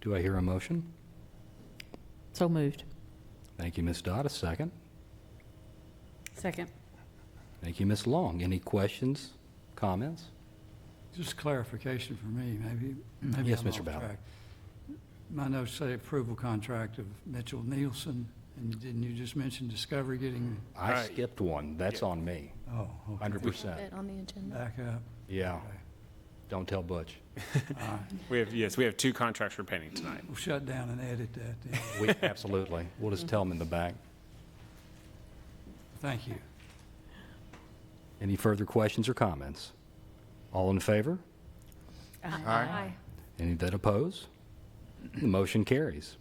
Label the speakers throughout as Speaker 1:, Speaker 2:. Speaker 1: Do I hear a motion?
Speaker 2: So moved.
Speaker 1: Thank you, Ms. Dodd. A second.
Speaker 2: Second.
Speaker 1: Thank you, Ms. Long. Any questions, comments?
Speaker 3: Just clarification for me, maybe, maybe
Speaker 1: Yes,
Speaker 3: I'm
Speaker 1: Mr.
Speaker 3: off
Speaker 1: Ballard.
Speaker 3: track. My notes say approval contract of Mitchell Nielsen, and didn't you just mention Discovery getting,
Speaker 1: I
Speaker 4: Aye.
Speaker 1: skipped one. That's on me,
Speaker 3: oh, okay,
Speaker 1: 100%.
Speaker 5: on the agenda.
Speaker 3: back up.
Speaker 1: Yeah.
Speaker 3: Okay.
Speaker 1: Don't tell Butch.
Speaker 4: We have, yes, we have two contracts we're painting tonight.
Speaker 3: We'll shut down and edit that then.
Speaker 1: We, absolutely. We'll just tell him in the back.
Speaker 3: Thank you.
Speaker 1: Any further questions or comments? All in favor?
Speaker 5: Aye.
Speaker 1: Any that oppose? The motion carries.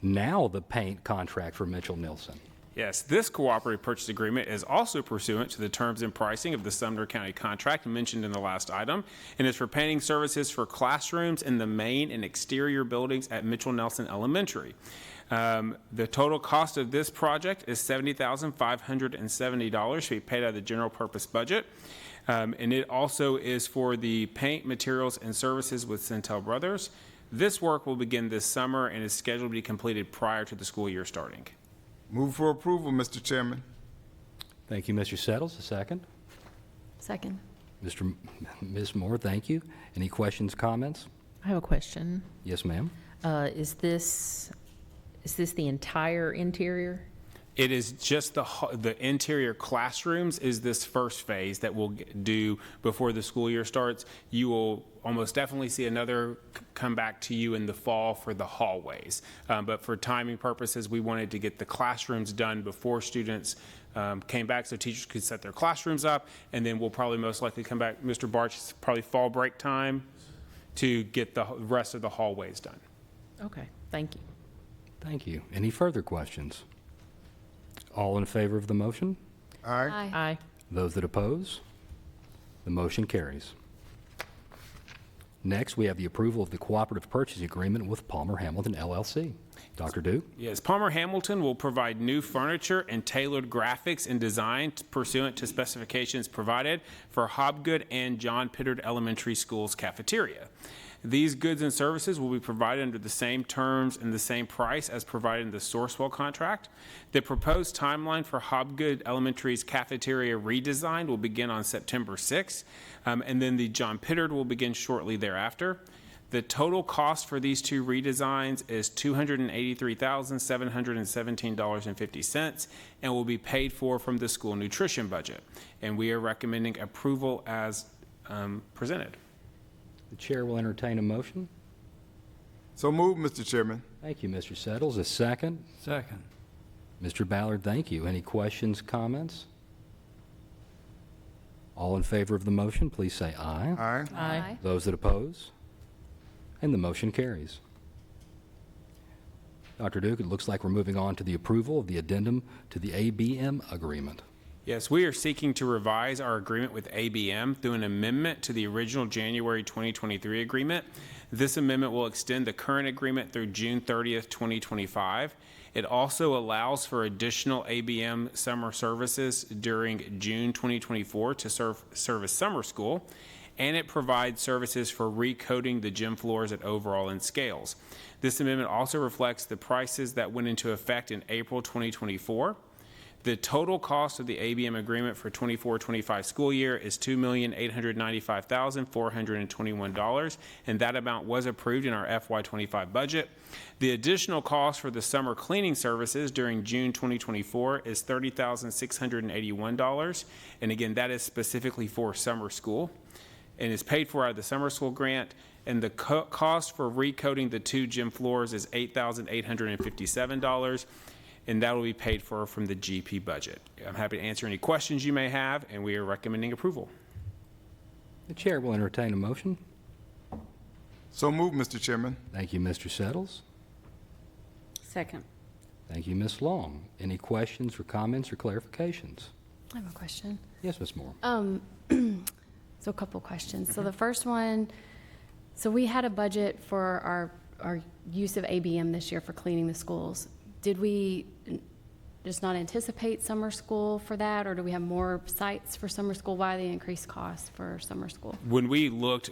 Speaker 1: Now the paint contract for Mitchell Nilsson.
Speaker 4: Yes, this cooperative purchase agreement is also pursuant to the terms and pricing of the Sumner County contract mentioned in the last item and is for painting services for classrooms in the main and exterior buildings at Mitchell Nelson Elementary. Um, The total cost of this project is $70,570 to be paid out of the general purpose budget. Um, And it also is for the paint materials and services with Centel Brothers. This work will begin this summer and is scheduled to be completed prior to the school year starting.
Speaker 6: Move for approval, Mr. Chairman.
Speaker 1: Thank you, Mr. Settles. A second.
Speaker 5: Second.
Speaker 1: Mr. M- Ms. Moore, thank you. Any questions, comments?
Speaker 2: I have a question.
Speaker 1: Yes, ma'am.
Speaker 2: Uh, Is this, is this the entire interior?
Speaker 4: It is just the, hu- the interior classrooms is this first phase that we'll g- do before the school year starts. You will almost definitely see another c- come back to you in the fall for the hallways. Um, But for timing purposes, we wanted to get the classrooms done before students um, came back, so teachers could set their classrooms up. And then we'll probably most likely come back, Mr. Barch, it's probably fall break time to get the h- rest of the hallways done.
Speaker 2: Okay, thank you.
Speaker 1: Thank you. Any further questions? All in favor of the motion?
Speaker 6: Aye.
Speaker 5: Aye.
Speaker 2: Aye.
Speaker 1: Those that oppose? The motion carries. Next, we have the approval of the cooperative purchase agreement with Palmer Hamilton LLC. Dr. Duke?
Speaker 4: Yes, Palmer Hamilton will provide new furniture and tailored graphics and design pursuant to specifications provided for Hobgood and John Pittard Elementary School's cafeteria. These goods and services will be provided under the same terms and the same price as provided in the Sourcewell contract. The proposed timeline for Hobgood Elementary's cafeteria redesign will begin on September 6th, um, and then the John Pittard will begin shortly thereafter. The total cost for these two redesigns is $283,717.50 and will be paid for from the school nutrition budget. And we are recommending approval as um, presented.
Speaker 1: The chair will entertain a motion.
Speaker 6: So move, Mr. Chairman.
Speaker 1: Thank you, Mr. Settles. A second.
Speaker 3: Second,
Speaker 1: Mr. Ballard, thank you. Any questions, comments? All in favor of the motion, please say aye.
Speaker 6: Aye.
Speaker 2: Aye.
Speaker 1: Those that oppose? And the motion carries. Dr. Duke, it looks like we're moving on to the approval of the addendum to the ABM agreement.
Speaker 4: Yes, we are seeking to revise our agreement with ABM through an amendment to the original January 2023 agreement. This amendment will extend the current agreement through June 30th, 2025. It also allows for additional ABM summer services during June 2024 to serve, serve as summer school and it provides services for recoding the gym floors at overall and scales. This amendment also reflects the prices that went into effect in April 2024. The total cost of the ABM agreement for 24-25 school year is $2,895,421, and that amount was approved in our FY25 budget. The additional cost for the summer cleaning services during June 2024 is $30,681, and again, that is specifically for summer school and is paid for out of the summer school grant. And the co- cost for recoding the two gym floors is $8,857, and that will be paid for from the GP budget. I'm happy to answer any questions you may have, and we are recommending approval.
Speaker 1: The chair will entertain a motion.
Speaker 6: So move, Mr. Chairman.
Speaker 1: Thank you, Mr. Settles.
Speaker 7: Second.
Speaker 1: Thank you, Ms. Long. Any questions or comments or clarifications?
Speaker 5: I have a question.
Speaker 1: Yes, Ms. Moore.
Speaker 5: So a couple questions. So the first one, so we had a budget for our, our use of ABM this year for cleaning the schools. Did we n- just not anticipate summer school for that, or do we have more sites for summer school? Why the increased cost for summer school?
Speaker 4: When we looked